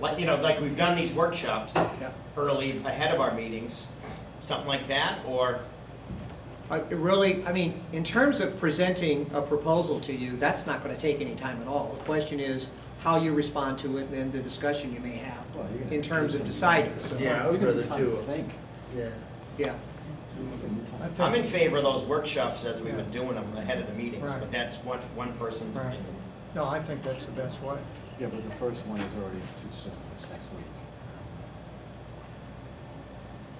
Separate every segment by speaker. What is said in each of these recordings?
Speaker 1: Like, you know, like we've done these workshops early ahead of our meetings, something like that, or,
Speaker 2: I- Uh, it Really, I mean, in terms of presenting a proposal to you, that's not going to take any time at all. The question is how you respond to it and the discussion you may have
Speaker 3: Well, you're gonna
Speaker 2: in terms of
Speaker 3: do
Speaker 2: deciding.
Speaker 3: something.
Speaker 4: Yeah, I would
Speaker 3: You're gonna have
Speaker 4: rather
Speaker 3: time to
Speaker 4: do it.
Speaker 3: Think.
Speaker 4: Yeah.
Speaker 2: Yeah,
Speaker 3: I think-
Speaker 1: I'm in favor of those workshops as we've been doing them ahead of the meetings, but
Speaker 4: Right.
Speaker 1: that's one, one person's
Speaker 4: Right.
Speaker 1: opinion.
Speaker 4: No, I think that's the best way.
Speaker 3: Yeah, but the first one is already too soon, it's next week.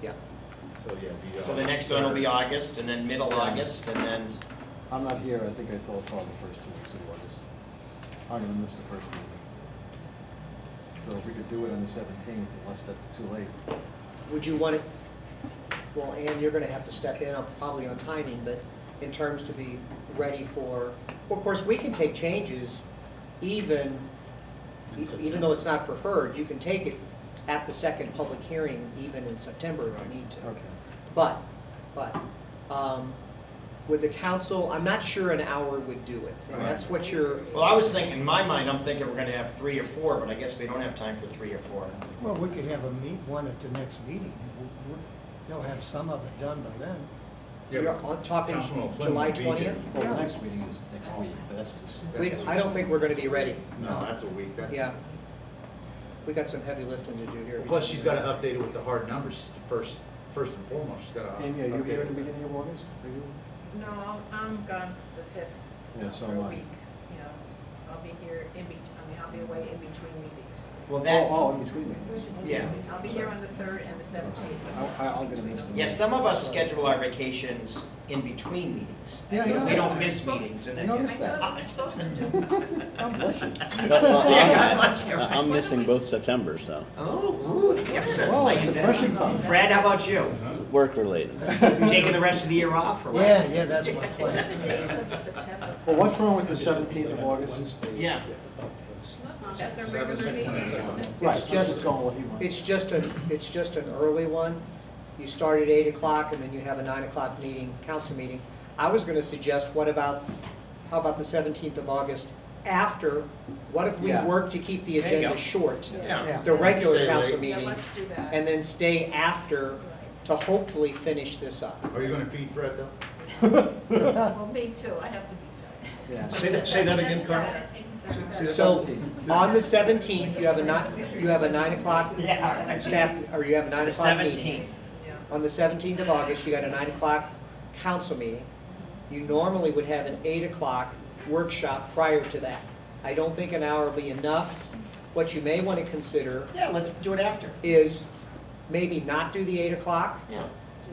Speaker 2: yeah.
Speaker 5: So, yeah. the, uh,
Speaker 1: So the next one will be August, and then middle August, and then,
Speaker 3: I'm not here, I think I told Paul the first two weeks of August. I'm gonna miss the first meeting. So if we could do it on the seventeenth, unless that's too late.
Speaker 2: Would you want it, well, Ann, you're going to have to step in on- probably on timing, but in terms to be ready for, well, of course, we can take changes even, e- even though it's not preferred, you can take it at the second public hearing even in September if you need to.
Speaker 3: Okay.
Speaker 2: But, but, um, with the council, I'm not sure an hour would do it. And that's what you're,
Speaker 1: well, I was thinking, in my mind, I'm thinking we're gonna have three or four, but I guess we don't have time for three or four.
Speaker 4: Well, we could have a meet, one at the next meeting. We- we- They'll have some of it done by then.
Speaker 2: you're on- talking
Speaker 6: Councilman Flynn
Speaker 2: July
Speaker 6: will be here.
Speaker 2: twentieth?
Speaker 3: Well, the
Speaker 4: Yeah.
Speaker 3: next meeting is next week, but that's too soon.
Speaker 2: We, I don't think we're gonna be ready.
Speaker 6: No, that's a week, that's.
Speaker 2: Yeah. We got some heavy lifting to do here.
Speaker 6: Plus, she's gotta update it with the hard numbers first, first and foremost, she's gotta.
Speaker 3: And yeah, you're
Speaker 6: update
Speaker 3: here
Speaker 6: it.
Speaker 3: in the beginning of August, are you?
Speaker 7: No, I'll- I'm gone for the fifth.
Speaker 3: Yeah, so
Speaker 7: for
Speaker 3: am
Speaker 7: a
Speaker 3: I.
Speaker 7: week, You know, I'll be here in between, I mean, I'll be away in between meetings.
Speaker 1: Well,
Speaker 3: Oh,
Speaker 1: that,
Speaker 3: oh, in between meetings.
Speaker 1: Yeah.
Speaker 7: I'll be here on the third and the seventeenth.
Speaker 3: I, I- I'm gonna miss the.
Speaker 1: yeah,
Speaker 3: meeting.
Speaker 1: some of us schedule our vacations in between meetings.
Speaker 3: Yeah, I know.
Speaker 1: We don't miss meetings, and
Speaker 3: I
Speaker 1: then.
Speaker 7: I
Speaker 3: noticed
Speaker 7: thought
Speaker 3: that.
Speaker 7: I was supposed to do. it.
Speaker 3: God bless you.
Speaker 8: No, no,
Speaker 1: Yeah, God
Speaker 8: I'm-
Speaker 1: bless you.
Speaker 8: I'm missing both Septembers, though,
Speaker 1: Oh, ooh, yeah, so
Speaker 3: Whoa,
Speaker 1: like that.
Speaker 3: depression time.
Speaker 1: Fred, how about you?
Speaker 8: work-related.
Speaker 1: Taking the rest of the year off or what?
Speaker 4: Yeah, yeah, that's my
Speaker 7: That's
Speaker 4: plan.
Speaker 7: the dates of the September.
Speaker 3: Well, what's wrong with the seventeenth of August?
Speaker 1: Yeah.
Speaker 7: That's our regular meeting, isn't it?
Speaker 3: Right,
Speaker 2: It's
Speaker 3: just
Speaker 2: just-
Speaker 3: going what he wants.
Speaker 2: It's just a, it's just an early one. You start at eight o'clock and then you have a nine o'clock meeting, council meeting. I was gonna suggest, what about, how about the seventeenth of August after? What if we
Speaker 3: Yeah.
Speaker 2: work to keep the
Speaker 1: There you
Speaker 2: agenda
Speaker 1: go.
Speaker 2: short?
Speaker 1: Yeah.
Speaker 2: The regular
Speaker 6: Stay
Speaker 2: council
Speaker 6: late.
Speaker 7: Yeah,
Speaker 2: meeting,
Speaker 7: let's do that.
Speaker 2: and then stay after to hopefully finish this up.
Speaker 6: Are you gonna feed Fred though?
Speaker 7: Well, me too, I have to be fed.
Speaker 3: Yeah.
Speaker 6: Say that, say that again, Carl.
Speaker 7: Carl.
Speaker 2: So,
Speaker 3: 17th.
Speaker 2: on the seventeenth, you have a nine, you have a nine o'clock
Speaker 1: Yeah, all right.
Speaker 2: staff, or you have a nine
Speaker 1: The
Speaker 2: o'clock meeting.
Speaker 1: seventeenth.
Speaker 2: On the seventeenth of August, you got a nine o'clock council meeting. You normally would have an eight o'clock workshop prior to that. I don't think an hour will be enough. What you may want to consider
Speaker 1: Yeah, let's do it after.
Speaker 2: is maybe not do the eight o'clock.
Speaker 1: Yeah.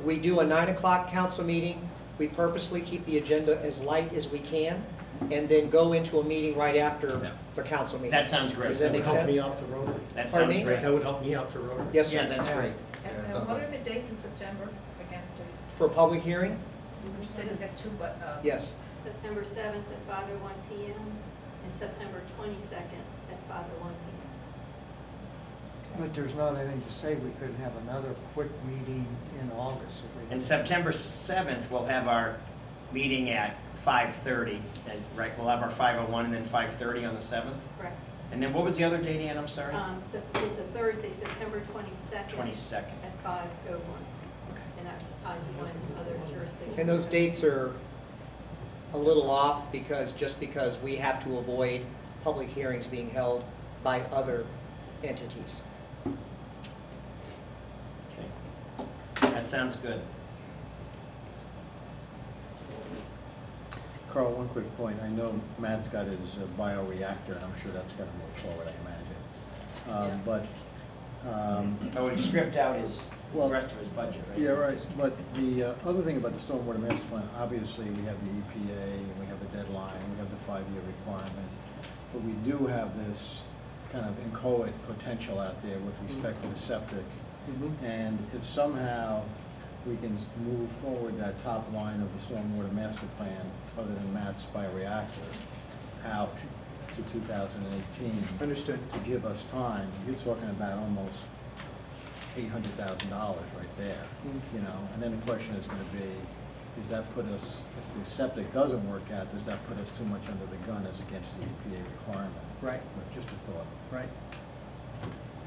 Speaker 2: We do a nine o'clock council meeting. We purposely keep the agenda as light as we can, and then go into a meeting right
Speaker 1: Yeah.
Speaker 2: after the council meeting.
Speaker 1: That sounds great.
Speaker 2: Does that make
Speaker 5: Help me
Speaker 2: sense?
Speaker 5: out for Rotary.
Speaker 1: That
Speaker 2: Pardon
Speaker 1: sounds
Speaker 2: me?
Speaker 1: great.
Speaker 5: That would help me out for Rotary.
Speaker 2: Yes,
Speaker 1: Yeah,
Speaker 2: sir.
Speaker 1: that's great.
Speaker 7: And then what are the dates in September, again, please?
Speaker 2: For a public hearing?
Speaker 7: You were sitting at two, but, uh.
Speaker 2: Yes.
Speaker 9: September 7th at 5:01 PM and September 22nd at 5:01 PM.
Speaker 4: But there's not anything to say we couldn't have another quick meeting in August if we.
Speaker 1: And September seventh, we'll have our meeting at five thirty, and, right, we'll have our five oh one and then five thirty on the seventh.
Speaker 9: Correct.
Speaker 1: And then what was the other date, Ann, I'm sorry?
Speaker 9: Um, so It's a Thursday, September 22nd.
Speaker 1: 22nd.
Speaker 9: At 5:01. And that's on one other jurisdiction.
Speaker 2: And those dates are a little off because, just because we have to avoid public hearings being held by other entities.
Speaker 1: Okay. That sounds good.
Speaker 3: Carl, one quick point. I know Matt's got his uh, bioreactor, and I'm sure that's gonna move forward, I imagine. Um, But, um,
Speaker 1: Oh, he stripped out his, the
Speaker 3: Well-
Speaker 1: rest of his budget, right?
Speaker 3: yeah, right, but the uh, other thing about the stormwater master plan, obviously, we have the EPA, and we have the deadline, we have the five-year requirement, but we do have this kind of inchoate potential out there with respect to the septic.
Speaker 2: Mm-hmm.
Speaker 3: And if somehow we can move forward that top line of the stormwater master plan, other than Matt's bioreactor, out to two thousand and eighteen.
Speaker 2: Understood.
Speaker 3: To give us time, you're talking about almost eight hundred thousand dollars right there, you know? And then the question is gonna be, does that put us, if the septic doesn't work out, does that put us too much under the gun as against the EPA E requirement?
Speaker 2: Right.
Speaker 3: But Just a thought.
Speaker 2: Right.